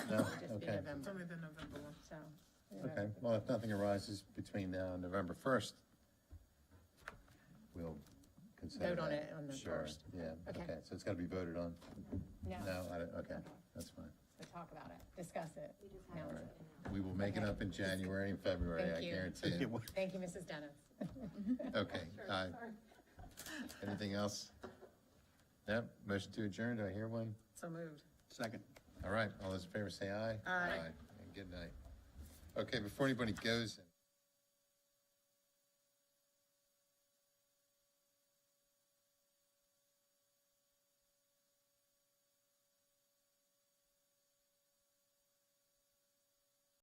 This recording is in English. No? just be Oh, Okay. November, It's only the November one. so. we don't have Okay, to- well, if nothing arises between now and November first, we'll consider that. Vote on it on the Sure, 1st. yeah, Okay. okay, so it's gotta be voted on? No, No, I don't, okay, that's fine. so talk about it, discuss it. All No. right. We will make it Okay. up in January and February, Thank I you. guarantee it. Thank you, Mrs. Dennis. Okay, uh, anything else? Yep, motion to adjourn, do I hear one? So moved. Second. All right, all those in favor say aye. Aye. And good night. Okay, before anybody goes.